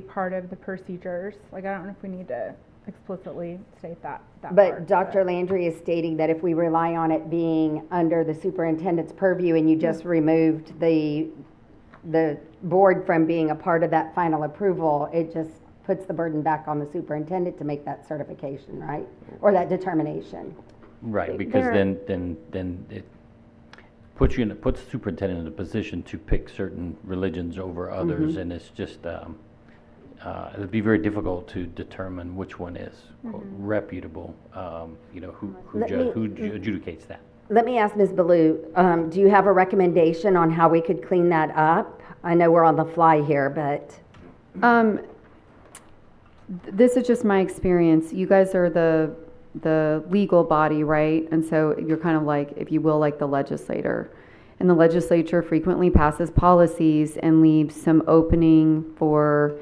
be part of the procedures. Like, I don't know if we need to explicitly state that, that But part, Dr. Landry is stating that if we rely on it being under the superintendent's purview and you just removed the, the board from being a part of that final approval, it just puts the burden back on the superintendent to make that certification, right? Or that determination. Right, because There- then, then, then it puts you in, it puts the superintendent in a position to pick certain religions over others, Mm-hmm. and it's just, um, uh, it'd be very difficult to determine which one is quote, reputable, um, you know, who, Mm-hmm. who Let ju- me- who ju- adjudicates that. Let me ask Ms. Baloo, um, do you have a recommendation on how we could clean that up? I know we're on the fly here, but, Um, th- this is just my experience. You guys are the the legal body, right? And so you're kind of like, if you will, like the legislator. And the legislature frequently passes policies and leaves some opening for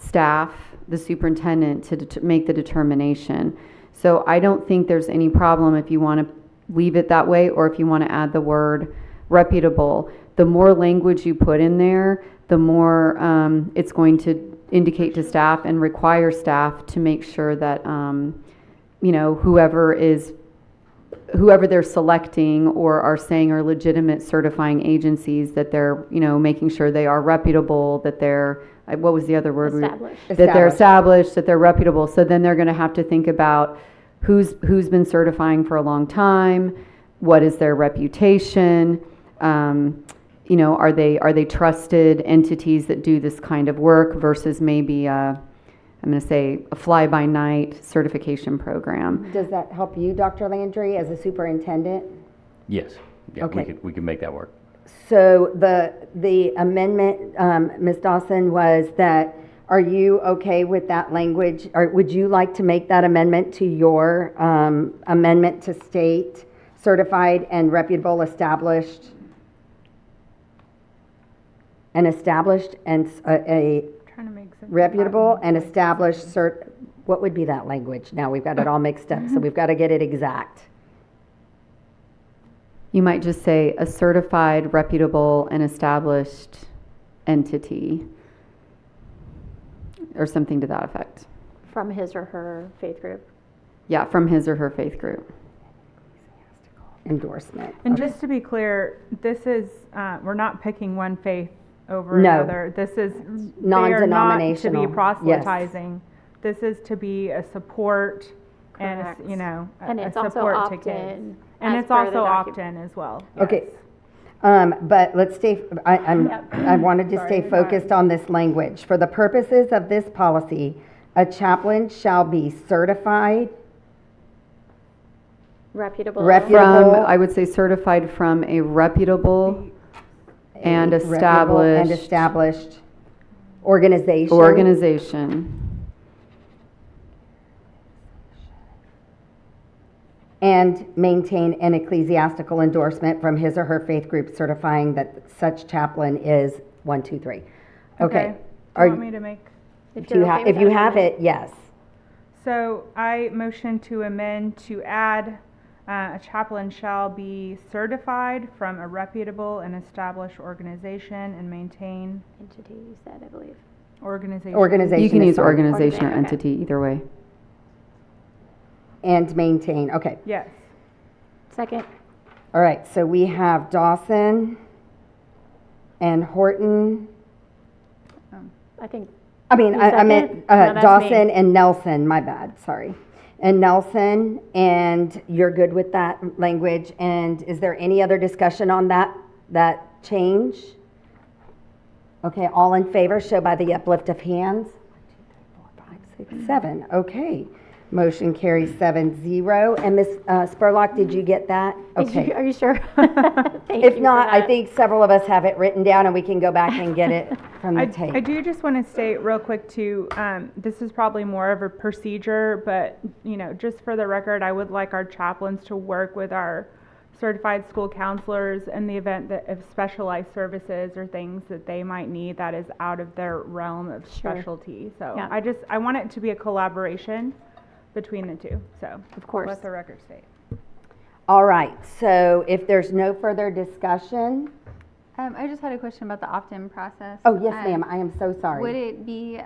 staff, the superintendent, to det- make the determination. So I don't think there's any problem if you want to leave it that way or if you want to add the word reputable. The more language you put in there, the more um, it's going to indicate to staff and require staff to make sure that, um, you know, whoever is, whoever they're selecting or are saying are legitimate certifying agencies, that they're, you know, making sure they are reputable, that they're, uh, what was the other word? we- Established. That they're Established. established, that they're reputable. So then they're going to have to think about who's who's been certifying for a long time, what is their reputation, um, you know, are they are they trusted entities that do this kind of work versus maybe i I'm going to say a fly by night certification program. does that help you, Dr. Landry, as a superintendent? Yes, yeah, we Okay. could, we could make that work. So the, the amendment, um, Ms. Dawson, was that, are you okay with that language? Or would you like to make that amendment to your um, amendment to state certified and reputable established? An established and s- a- a Trying to make sense. of that. reputable and established cert, what would be that language? Now, we've got it all mixed up, so we've got to get it exact. You might just say a certified, reputable, and established entity, or something to that effect. from his or her faith group. Yeah, from his or her faith group. Endorsement. And just to be clear, this is, uh, we're not picking one faith over No. another. This is, they are not to Non-denominational. be Yes. proselytizing. This is to be a support and, a s- Correct. you know, a And a it's also support to kids. opt-in And as it's per the also docu- opt-in as well. Okay, um, but let's stay, I, I'm, I wanted to stay Sorry. focused on this language. For the purposes of this policy, a chaplain shall be certified, Reputable. Repu- From, Reputable. I would say certified from a reputable and reputable and established established organization. organization. And maintain an ecclesiastical endorsement from his or her faith group certifying that such chaplain is one, two, three. Okay. Do Are you want you- me to make? If you have, if you have it, yes. So I motion to amend to add, uh, a chaplain shall be certified from a reputable and established organization and maintain Entity, you said, I believe. organization. Organization. You can is use fine. organization or Okay. entity, either way. And maintain, okay. Yes. Second, All right, so we have Dawson and Horton. I think, I mean, You I, I meant second? No, uh, that's me. Dawson and Nelson, my bad, sorry. And Nelson, and you're good with that language. And is there any other discussion on that, that change? Okay, all in favor, show by the uplift of hands. Five, six, seven, okay. Motion carries seven zero. And Ms. uh, Spurlock, did you get that? Did Okay. you- are you sure? If not, I think several of us have it written down and we can go back and get it from I, the I tape. do just want to state real quick too, um, this is probably more of a procedure, but, you know, just for the record, I would like our chaplains to work with our certified school counselors in the event that of specialized services or things that they might need that is out of their realm of specialty. So Yeah. I just, I want it to be a collaboration between the two, so. Of course. Let the record state. All right, so if there's no further discussion, Um, I just had a question about the opt-in process. oh, yes, Um, ma'am, I am so Would sorry. it be